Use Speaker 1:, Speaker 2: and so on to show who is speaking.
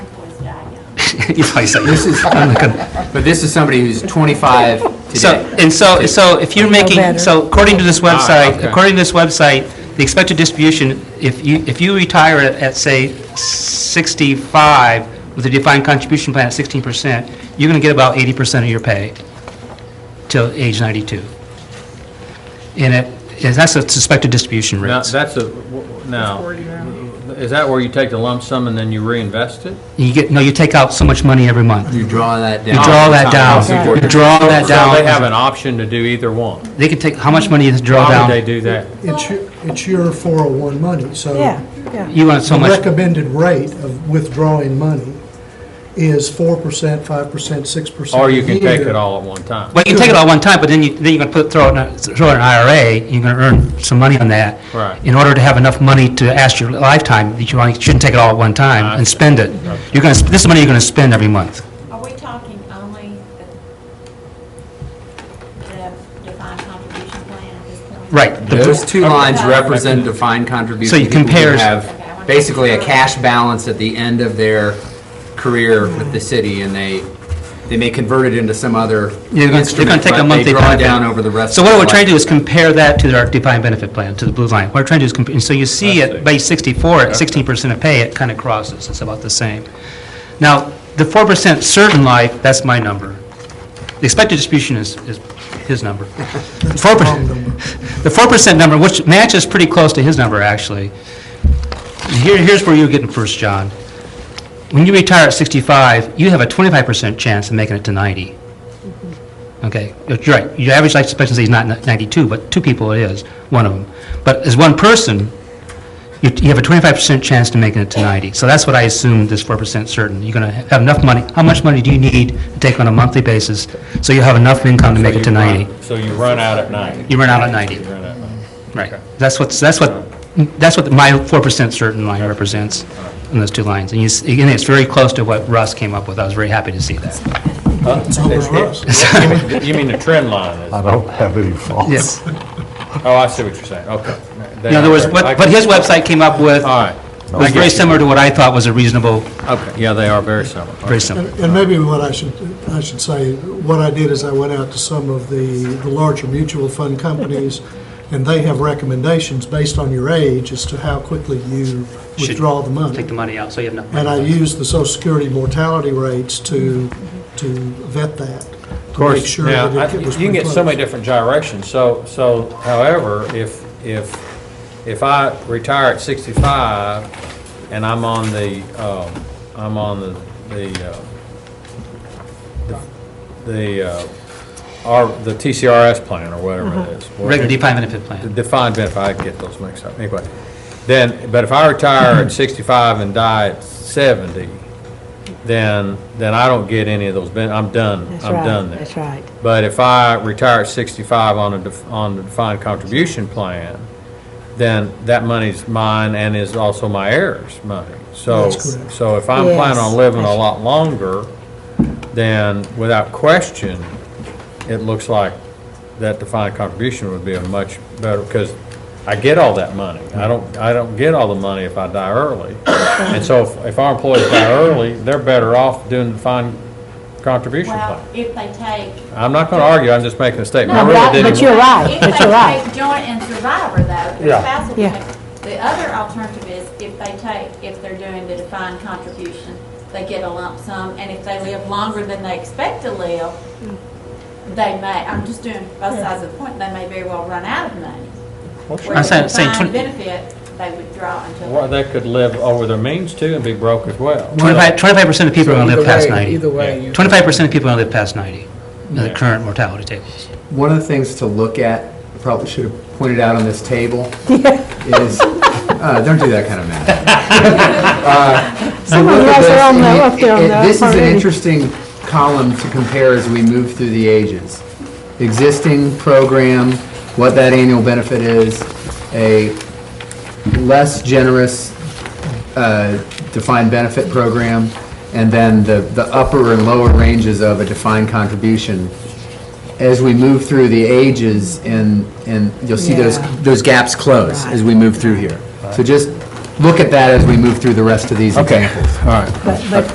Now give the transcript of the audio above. Speaker 1: you probably say, this is,
Speaker 2: But this is somebody who's 25
Speaker 1: So,
Speaker 2: today.
Speaker 1: and so, so if you're making,
Speaker 3: better.
Speaker 1: so according to this website,
Speaker 2: okay.
Speaker 1: according to this website, the expected distribution, if you, if you retire at- at, say, 65 with a defined contribution plan at 16%, you're going to get about 80% of your pay till age 92. And it, and that's a suspected distribution
Speaker 4: Now,
Speaker 1: rate.
Speaker 4: that's a, now, is that where you take the lump sum and then you reinvest it?
Speaker 1: You get, no, you take out so much money every month.
Speaker 2: You draw that down.
Speaker 1: You draw that down, you draw that
Speaker 4: So they have
Speaker 1: down.
Speaker 4: an option to do either one.
Speaker 1: They can take, how much money is draw
Speaker 4: Why would they
Speaker 1: down?
Speaker 4: do that?
Speaker 5: It's your, it's your 401 money, so.
Speaker 3: Yeah, yeah.
Speaker 1: You want so
Speaker 5: The
Speaker 1: much.
Speaker 5: recommended rate of withdrawing money is 4%, 5%, 6%.
Speaker 4: Or you can
Speaker 5: a
Speaker 4: take
Speaker 5: year.
Speaker 4: it all at one time.
Speaker 1: Well, you can take it all at one time, but then you, then you're gonna put, throw it, in a- throw it in an IRA, you're gonna earn some money on that.
Speaker 4: Right.
Speaker 1: In order to have enough money to last your lifetime, that you only- shouldn't take it all at one time and spend it. You're gonna, sp- this is money you're gonna spend every month.
Speaker 6: Are we talking only the- the defined contribution plan at this point?
Speaker 1: Right. The-
Speaker 2: Those two lines represent defined contribution.
Speaker 1: So you
Speaker 2: people who
Speaker 1: compare-
Speaker 2: Have basically a cash balance at the end of their career with the city, and they, they may convert it into some other
Speaker 1: You're gonna, you're gonna
Speaker 2: instrument,
Speaker 1: take a
Speaker 2: but they
Speaker 1: monthly
Speaker 2: draw
Speaker 1: benefit.
Speaker 2: down over the rest.
Speaker 1: So
Speaker 2: of
Speaker 1: what
Speaker 2: their
Speaker 1: we're trying to do
Speaker 2: life.
Speaker 1: is compare that to our defined benefit plan, to the blue line. What we're trying to do is, compare. so you see at, by 64, at 16% of pay, it kind of crosses, it's about the same. Now, the 4% certain life, that's my number. The expected distribution is, is his number. Four percent.
Speaker 5: Wrong number.
Speaker 1: The four percent number, which matches pretty close to his number, actually. Here, here's where you're getting first, John. When you retire at sixty-five, you have a twenty-five percent chance of making it to ninety. Okay, you're right, your average life expectancy is not ni- ninety-two, but two people it is, one of them. But as one person, you, you have a twenty-five percent chance to making it to ninety. So that's what I assume this four percent certain. You're gonna ha- have enough money, how much money do you need to take on a monthly basis so you have enough income to make it to
Speaker 4: So you run-
Speaker 1: ninety?
Speaker 4: So you run out at 90.
Speaker 1: You run out at ninety.
Speaker 4: You run out at 90.
Speaker 1: Right. That's what's, that's what, that's what my 4% certain line represents in those two lines. And you, s- again, it's very close to what Russ came up with. I was very happy to see that.
Speaker 4: You mean- You mean the trend line is,
Speaker 7: I don't have any faults.
Speaker 1: Yes.
Speaker 4: oh, I see what you're saying, okay.
Speaker 1: In other words, what, what his website came up with
Speaker 4: All right,
Speaker 1: was very similar to what I thought was a reasonable,
Speaker 4: okay, yeah, they are very similar.
Speaker 1: very
Speaker 5: And
Speaker 1: similar.
Speaker 5: and maybe what I should, I should say, what I did is I went out to some of the the larger mutual fund companies, and they have recommendations based on your age as to how quickly you
Speaker 1: Should
Speaker 5: withdraw the money.
Speaker 1: Take the money out, so you have enough
Speaker 5: And I
Speaker 1: money.
Speaker 5: used the social security mortality rates to, to vet that. Of
Speaker 4: course,
Speaker 5: To make sure
Speaker 4: now, I-
Speaker 5: that it was.
Speaker 4: You can get
Speaker 5: pretty
Speaker 4: so many
Speaker 5: close.
Speaker 4: different gyrations, so, so however, if, if, if I retire at 65 and I'm on the, um, I'm on the, the, uh, the- the, uh, our, the TCRS plan or whatever it
Speaker 3: Mm-hmm.
Speaker 4: is.
Speaker 1: Regular defined benefit
Speaker 4: The
Speaker 1: plan.
Speaker 4: Defined benefit, I get those mixed up, anyway. Then, but if I retire at 65 and die at 70, then, then I don't get any of those, ben- I'm done,
Speaker 3: That's
Speaker 4: I'm
Speaker 3: right,
Speaker 4: done there.
Speaker 3: That's right.
Speaker 4: But if I retire at 65 on a, def- on the defined contribution plan, then that money's mine and is also my heir's money. So,
Speaker 5: That's correct.
Speaker 4: so if I'm planning on
Speaker 3: Yes.
Speaker 4: living a lot longer, then without question, it looks like that defined contribution would be a much better, because I get all that money. I don't, I don't get all the money if I die early. And so if- if our employees die early, they're better off doing the defined contribution plan.
Speaker 6: Well, if they take.
Speaker 4: I'm not going to argue, I'm just making a statement. I
Speaker 3: No, but
Speaker 4: really
Speaker 3: I-
Speaker 4: didn't
Speaker 3: but you're right,
Speaker 6: If
Speaker 3: but you're
Speaker 6: they
Speaker 3: right.
Speaker 6: take joint and survivor though, their
Speaker 4: Yeah.
Speaker 6: spouse will
Speaker 3: Yeah.
Speaker 6: take. The other alternative is if they take, if they're doing the defined contribution, they get a lump sum. And if they live longer than they expect to live,
Speaker 3: Mm.
Speaker 6: they may, I'm just doing both sides of the point, they may very well run out of money.
Speaker 1: I'm saying- saying
Speaker 6: Where the
Speaker 1: twenty-
Speaker 6: defined benefit, they withdraw until.
Speaker 4: Well, they could live over their means too and be broke as well.
Speaker 1: 25, 25% of people are gonna
Speaker 8: Either
Speaker 1: live past
Speaker 8: way-
Speaker 1: 90.
Speaker 8: Either way, you.
Speaker 1: 25% of people are gonna live past 90 in the
Speaker 4: Yeah.
Speaker 1: current mortality tables.
Speaker 2: One of the things to look at, probably should have pointed out on this table, is, uh, don't do that kind of math. So
Speaker 3: Someone
Speaker 2: look at
Speaker 3: has their
Speaker 2: this,
Speaker 3: own,
Speaker 2: and
Speaker 3: uh,
Speaker 2: it-
Speaker 3: up there on
Speaker 2: it-
Speaker 3: the-
Speaker 2: This is an
Speaker 3: already.
Speaker 2: interesting column to compare as we move through the ages. Existing program, what that annual benefit is, a less generous uh, defined benefit program, and then the, the upper and lower ranges of a defined contribution. As we move through the ages, and, and you'll see those,
Speaker 3: Yeah.
Speaker 2: those gaps close as we move through here. So just look at that as we move through the rest of these examples.
Speaker 3: But, but